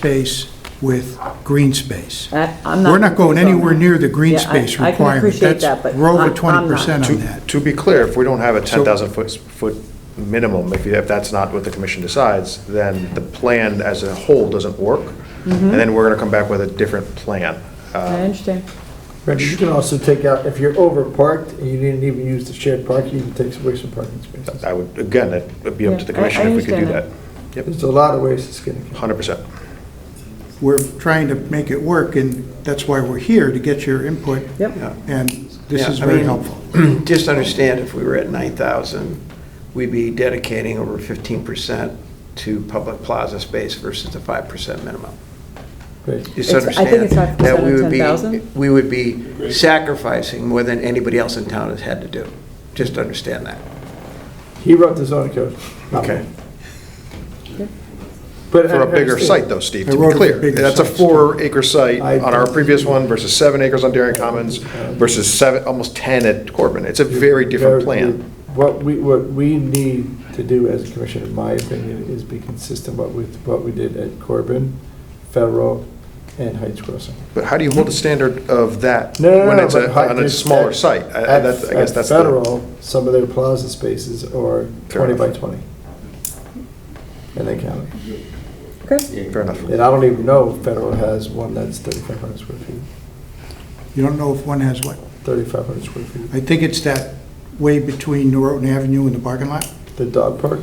space with green space. I- I'm We're not going anywhere near the green Yeah, I- space I can requirement. appreciate That's- that, but We're I'm- over I'm 20% not. on To- that. To be clear, if we don't have a So- 10,000 foot, foot minimum, if, you- if that's not what the commission decides, then the plan as a whole doesn't work. And then we're gonna come back with a different plan. I understand. Right, but you can also take out, if you're over parked and you didn't even use the shared parking, you can take away some parking spaces. I would, again, it would be up to the Yeah, I- I commission if we could do that. understand Yep, There's a lot of ways to skin a cat. 100%. We're trying to make it work, and that's why we're here, to get your input. Yep. And this Yeah, is I very mean, helpful. Just understand, if we were at 9,000, we'd be dedicating over 15% to public plaza space versus the 5% minimum. Great. It's- Just I think understand it's 5% that of we would be- 10,000? We would be sacrificing more than anybody else in town has had to do. Just understand that. He wrote the zoning code. not me. But For I a bigger understand. site though, Steve, I to wrote be it for clear. bigger That's a sites. four acre site I- on our previous one versus seven acres on Darien Commons versus seven, almost 10 at Corbin. It's a very different plan. What we, what we need to do as a commission, in my opinion, is be consistent what with what we did at Corbin, Federal, and Heights Crossing. But how do you hold a standard of that No, no, when no, it's but a- hi- on a it's smaller at- site? I- I At- that's- I guess at that's the- Federal, some of their plaza spaces are Fair 20 by enough. 20. And they count it. Okay, Fair enough. And I don't even know if Federal has one that's 3,500 square feet, You don't know if one has what? 3,500 square feet. I think it's that way between Norton Avenue and the parking lot, The dog park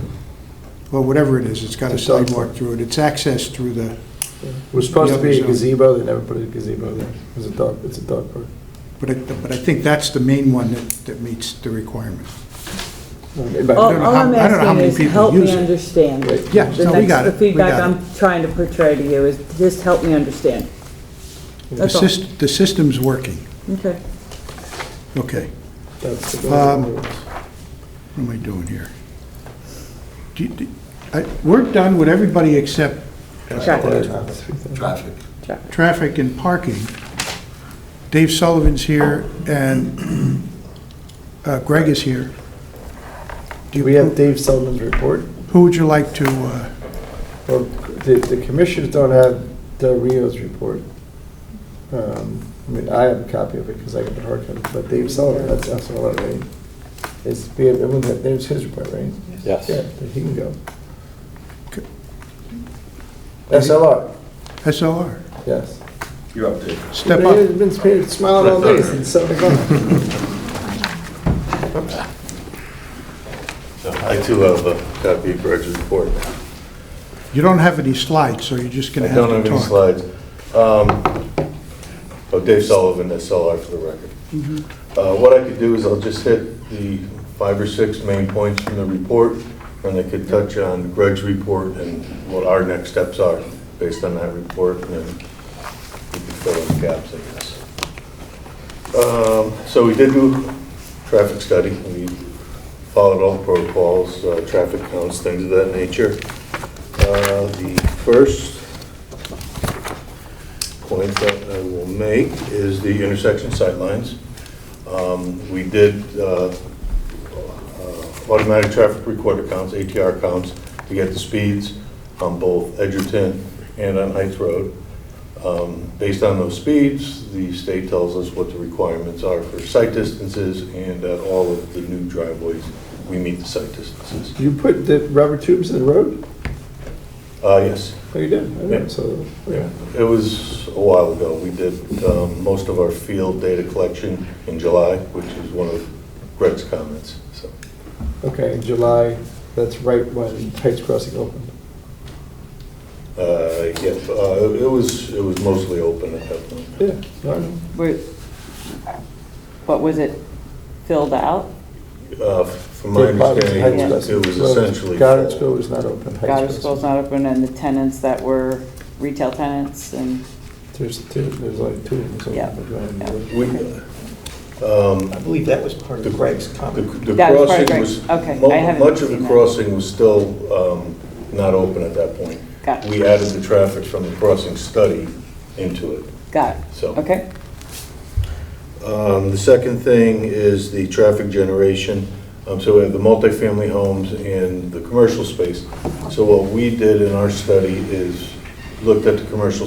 or whatever it is, it's got a It's done. sidewalk through it, it's access through the, was supposed to be Yeah, a so- gazebo, they never put a gazebo there. It was a dog, it's a dog park. but I, but I think that's the main one that, that meets the requirement. Um, but- all don't know all how- I'm I don't know how asking many is, people help use me it. understand. Right. Yeah, The no, we next- got it. The We feedback got it. I'm trying to portray to you is, just help me understand. The That's all. syst, the system's working, Okay. okay. That's the Um, What am I doing here? Do you- do- I- We're done with everybody except Traffic, Traffic. traffic. traffic and parking. Dave Sullivan's here, and uh, Greg is here. Do you- We have Dave Sullivan's report. Who would you like to, uh, Well, the, the commissioners don't have Del Rio's report. Um, I mean, I have a copy of it because I got the hard copy, but Dave Sullivan, that's, that's all I read. It's, we have- everyone had- there's his report, right? Yes. Yeah, he can go. Okay. SLR, SLR? yes. You update. Step They've up. Been been smiling all day since seven o'clock. I too have a copy of Greg's report. You don't have any slides, so you're just I going to have don't to have any talk. slides. Um, Oh, Dave Sullivan, SLR for the record. Uh, What I could do is I'll just hit the five or six main points from the report, and I could touch on Greg's report and what our next steps are based on that report, and then we could fill in the gaps, I guess. Um, So we did do traffic study. We followed all the protocols, uh, traffic counts, things of that nature. Uh, The first point that I will make is the intersection sightlines. Um, We did uh, uh, automatic traffic recorder counts, ATR counts, to get the speeds on both Edgerton and on Heights Road. Um, Based on those speeds, the state tells us what the requirements are for sight distances, and at all of the new driveways, we meet the sight distances. You put the rubber tubes in the road? Uh, Yes, Oh, you did? I Yeah. didn't, so, yeah, it was a while ago. We did um, most of our field data collection in July, which is one of Greg's comments, so. okay, in July, that's right when Heights Crossing opened. Uh, Yeah, uh, it was, it was mostly open at that point. Yeah, I know. Wait, What was it filled out? Uh, From my Yeah, Bottoms- understanding, it Heights was it was Crossing. essentially. Goddard full. School was not open. Heights Goddard Crossing. School's not open, and the tenants that were retail tenants, and, There's two, there's like two of them. Yeah, We, I believe that was part of Greg's The comment. the That was part of crossing Greg. was, Okay, mu- I haven't much of seen the that. crossing was still um, not open at that point. Got it. We added the traffic from the crossing study into it. got it. So- Okay, Um, The second thing is the traffic generation. Um, So we have the multifamily homes and the commercial space. So what we did in our study is looked at the commercial